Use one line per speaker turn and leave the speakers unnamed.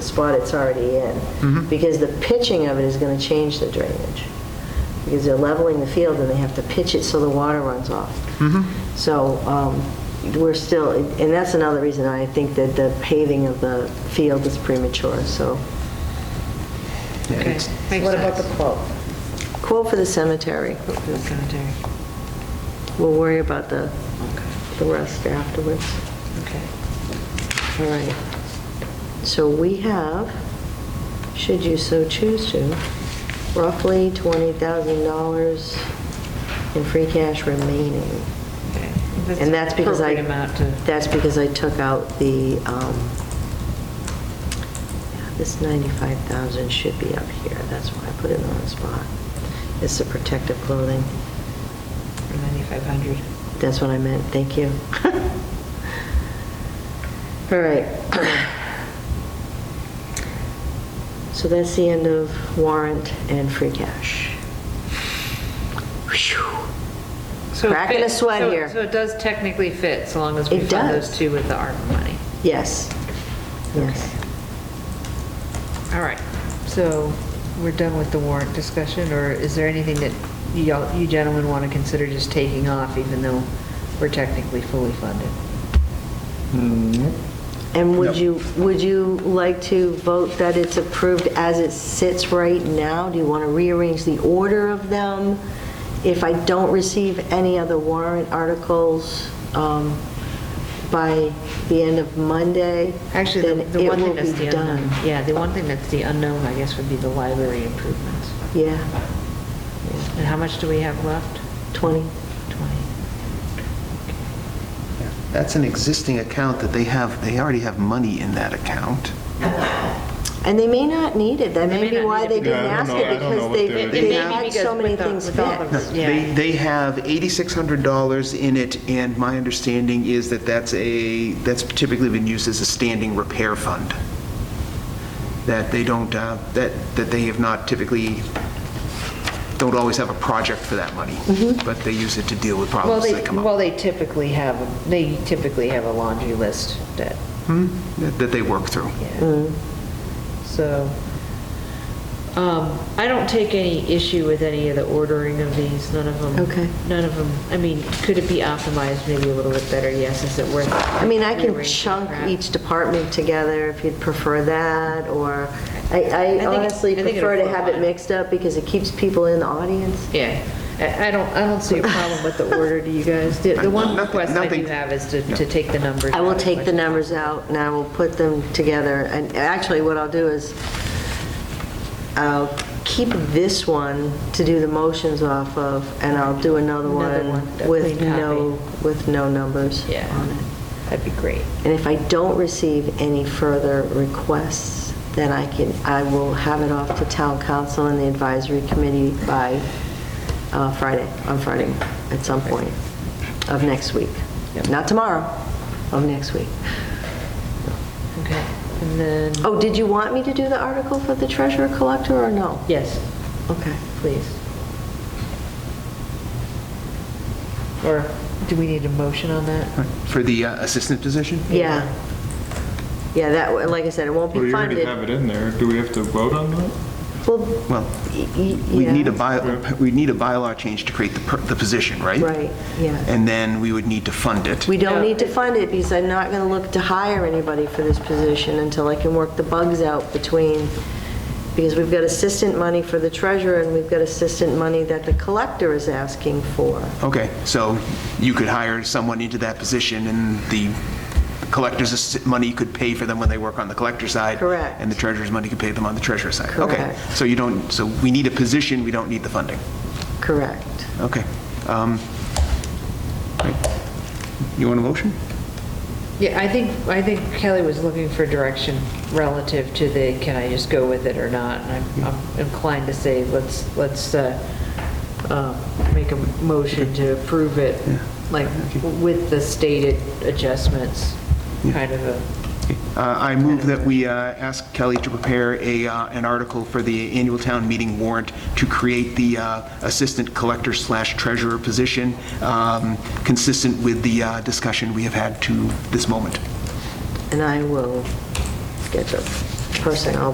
spot it's already in. Because the pitching of it is going to change the drainage. Because they're leveling the field and they have to pitch it so the water runs off. So um, we're still, and that's another reason I think that the paving of the field is premature, so.
Okay, makes
What about the
sense.
quote?
Quote for the cemetery.
That's gonna take-
We'll worry about the,
okay,
the rest afterwards.
okay.
All right. So we have, should you so choose to, roughly $20,000 in free cash remaining.
okay.
And that's because I,
Appropriate amount to,
that's because I took out the, um, this 95,000 should be up here, that's why I put it in the wrong spot. It's the protective clothing,
for 9,500.
that's what I meant, thank you. All right. So that's the end of warrant and free cash. Whew.
So it
Cracking a
fits-
sweat
so-
here.
So it does technically fit, so long as we
It
fund
does.
those two with the ARPA money.
Yes, yes.
All right, so we're done with the warrant discussion, or is there anything that y'all- you gentlemen want to consider just taking off, even though we're technically fully funded?
hmm,
And would
Yep.
you, would you like to vote that it's approved as it sits right now? Do you want to rearrange the order of them? If I don't receive any other warrant articles um, by the end of Monday,
Actually,
then it
the- the one
will
thing that's the
be done.
unknown. Yeah, the one thing that's the unknown, I guess, would be the library improvements.
Yeah,
And how much do we have left?
20.
20.
That's an existing account that they have, they already have money in that account.
And they may not need it, that
They
may
may
be
not
why
need it
they
because-
didn't
Yeah, I don't
ask
know- I
it,
don't know
because
what
they,
they're-
It
they
may be
had
because
so many
with the-
things
with all the-
fixed.
No, They,
Yeah.
they have $8,600 in it, and my understanding is that that's a, that's typically been used as a standing repair fund. That they don't, uh, that, that they have not typically, don't always have a project for that money, but they use it to deal with
Mm-hmm. Well,
problems
they,
that come
well,
up,
they typically have, a- they typically have a laundry list that,
Hmm? that that they work through.
yeah. So, um, I don't take any issue with any of the ordering of these, none of them.
Okay.
None of them, I mean, could it be optimized maybe a little bit better? Yes, is it worth?
I mean, I can
rearranging
chunk e-
crap?
each department together if you'd prefer that, or, I I
it-
honestly
I think it'll
prefer to
flow
have it
on.
mixed up because it keeps people in the audience.
Yeah, I, I don't, I don't see a problem with the order, do you guys? The the one
Nothing-
request I do
nothing-
have is to, to take the numbers.
I will
out.
take the numbers out and I will put them together, and actually, what I'll do is, I'll keep this one to do the motions off of, and I'll do another
Another
one
one, a
with
clean copy.
no, with no numbers
Yeah.
on it.
That'd be great.
And if I don't receive any further requests, then I can, I will have it off to town council and the advisory committee by uh, Friday, on Friday, at some point of next week. Not tomorrow, of next week.
Okay, and then,
Oh, did you want me to do the article for the treasurer collector or no?
yes,
Okay.
please. Or do we need a motion on that?
For the uh, assistant position?
Yeah. Yeah, that, like I said, it won't
Well,
be
you already
funded.
have it in there. Do we have to vote on that?
Well,
Well,
y- y-
we
yeah.
need a by, we need a bylaw change to create the, per- the position, right?
Right, yeah.
And then we would need to fund it.
We don't
No.
need to fund it because I'm not going to look to hire anybody for this position until I can work the bugs out between, because we've got assistant money for the treasurer and we've got assistant money that the collector is asking for.
Okay, so you could hire someone into that position, and the collector's assi- money could pay for them when they work on the collector side.
Correct.
And the treasurer's money could pay them on the treasurer side. Okay,
Correct.
so you don't, so we need a position, we don't need the funding.
Correct.
Okay. Um, right. You want a motion?
Yeah, I think, I think Kelly was looking for direction relative to the, can I just go with it or not? And I'm- I'm inclined to say, let's, let's uh, uh, make a motion to approve it, like, with the stated adjustments, kind of a,
Uh, I move that we uh, ask Kelly to prepare a, uh, an article for the annual town meeting warrant to create the uh, assistant collector slash treasurer position, um, consistent with the uh, discussion we have had to this moment.
And I will get the person, I'll